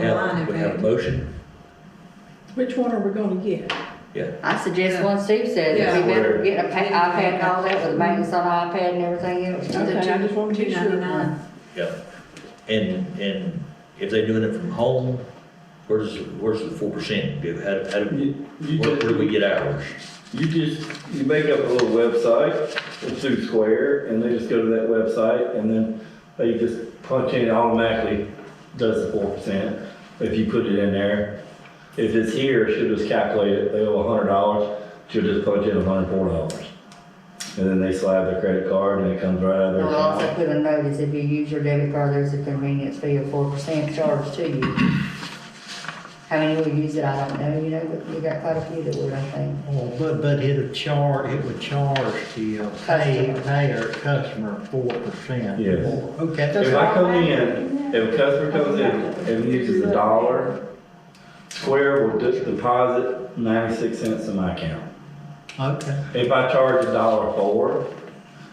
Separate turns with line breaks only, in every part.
have, we have a motion,
Which one are we gonna get?
yeah.
I suggest one Steve said, that we
Yeah.
better get a pa- iPad and all that with maintenance on iPad and everything else.
Okay, I just wanna be sure.
Yeah, and, and if they're doing it from home, where's, where's the four percent? How, how do,
You, you
where where do we
just,
get ours?
you just, you make up a little website, it's through Square, and they just go to that website, and then they just punch in, it automatically does the four percent, if you put it in there. If it's here, she'll just calculate it, they owe a hundred dollars, she'll just punch in a hundred and four dollars. And then they slide their credit card, and it comes right out of their
We'll also
account.
put a notice, if you use your debit card, there's a convenience fee of four percent charged to you. How many will use it, I don't know, you know, but we got quite a few that would, I think.
Well, Oh, but, but it'll charge, it would charge the uh, pay,
Customer.
payer customer four percent.
Yes.
Okay, that's,
If I come in, if a customer comes in and uses a dollar, Square will just deposit ninety-six cents in my account.
okay,
If I charge a dollar for,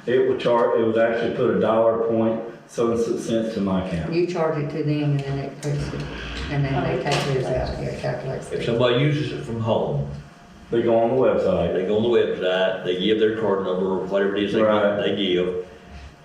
it, it would charge, it would actually put a dollar point seven cents to my account.
You charge it to them and then it puts it, and then they take theirs out, yeah, calculates
If
it.
somebody uses it from home,
They go on the website,
they go on the website, they give their card number, or whatever it is they,
Right.
they give.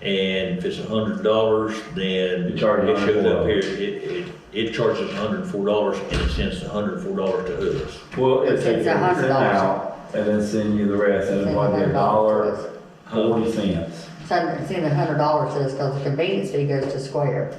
And if it's a hundred dollars, then
You
it
charge
shows up here,
$104.
it, it, it charges hundred and four dollars and it sends the hundred and four dollars to us.
well, it
It's
takes
a
it
hundred dollars.
out, and then send you the rest, and it's like a dollar forty cents.
So send a hundred dollars to us, cause the convenience fee goes to Square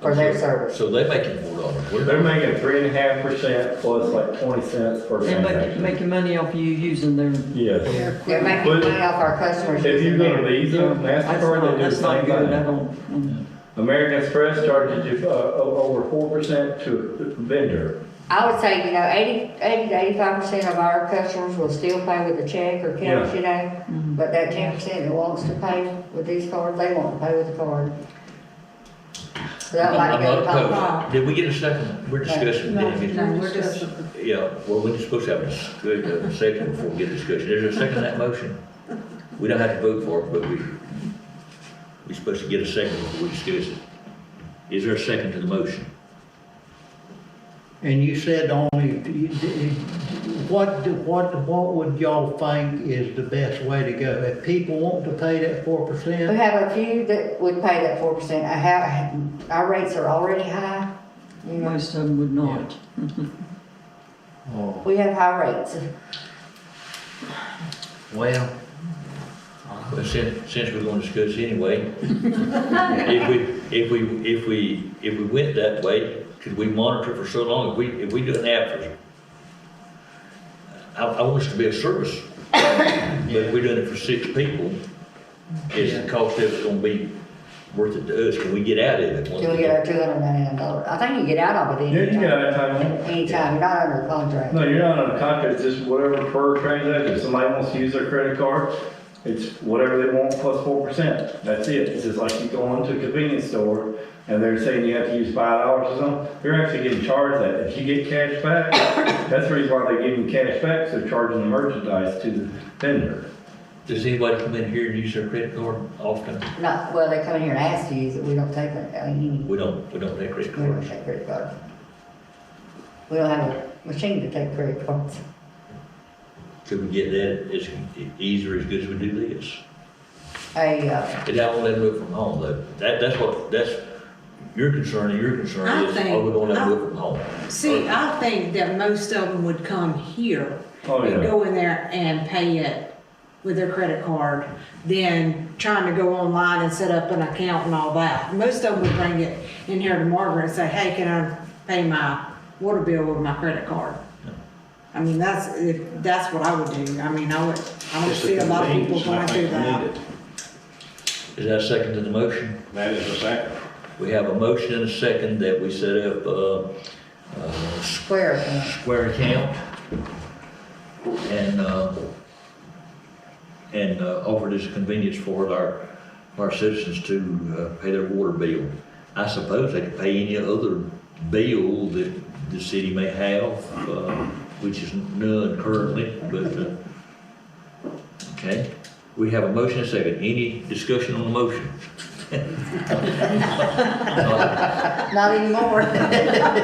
for their service.
So they make it four dollars.
They're making three and a half percent plus like twenty cents per
They're making,
transaction.
making money off you using their.
Yes.
They're making
But-
money off our customers.
If you
using
go to
their-
Visa,
That's
MasterCard,
not-
they do the
That's not
same
good, I
thing.
don't, mm.
American Express charges you uh, o- over four percent to a vendor.
I would say, you know, eighty, eighty to eighty-five percent of our customers will still pay with a check or cash, you know? But that ten percent that wants to pay with these cards, they want to pay with the card. So that might
I'm
be a
not
top
opposed. Did we get a second? We're discussing.
No,
didn't we?
no, we're just-
Yeah, well, we're supposed to have a s- good, uh second before we get a discussion. Is there a second to that motion? We don't have to vote for it, but we, we're supposed to get a second before we discuss it. Is there a second to the motion?
and you said only, you- you- what, do- what, what would y'all think is the best way to go? If people want to pay that four
We
percent,
have a few that would pay that four percent. I have, our rates are already high. You know,
most of them would not.
oh,
we have high rates.
well,
Well, since, since we're gonna discuss anyway, if we, if we, if we, if we went that way, could we monitor for so long, if we, if we do an app for, I, I want us to be of service, but if we're doing it for six people, is the cost of it gonna be worth it to us, can we get out of it? once
Till we
we-
get our two hundred ninety-nine dollars. I think you get out of it
Yeah, you
anytime.
got it, Tony.
Anytime, you're not under contract.
No, you're not on a contract, it's just whatever per transaction, if somebody wants to use their credit card, it's whatever they want plus four percent, that's it. It's just like you go into a convenience store, and they're saying you have to use five dollars or something, you're actually getting charged that. If you get cash back, that's the reason why they give you cash back, so they're charging the merchandise to the vendor.
Does anybody come in here and use their credit card often?
Not, well, they come in here and ask to use it. We don't take it, I mean,
We don't, we don't take credit
we don't
cards.
take credit cards. We don't have a machine to take credit cards.
Could we get that as easy or as good as we do this?
A, uh,
And I won't let them do it from home, though. That, that's what, that's your concern, and your concern
I
is,
think-
are we gonna let them do it from home?
See, I think that most of them would come here
Oh,
and
yeah.
go in there and pay it with their credit card than trying to go online and set up an account and all that. Most of them would bring it in here to Margaret and say, hey, can I pay my water bill with my credit card? I mean, that's, if, that's what I would do. I mean, I would, I would
It's a
see a lot of people
convenience, I
going through
think we need
that.
it.
Is that a second to the motion?
That is the second.
We have a motion and a second that we set up, uh, uh,
square account.
square account and, uh, and uh, offered as a convenience for our, our citizens to uh, pay their water bill. I suppose they could pay any other bill that the city may have, uh, which is none currently, but, uh, okay. We have a motion and a second. Any discussion on the motion?
Not anymore.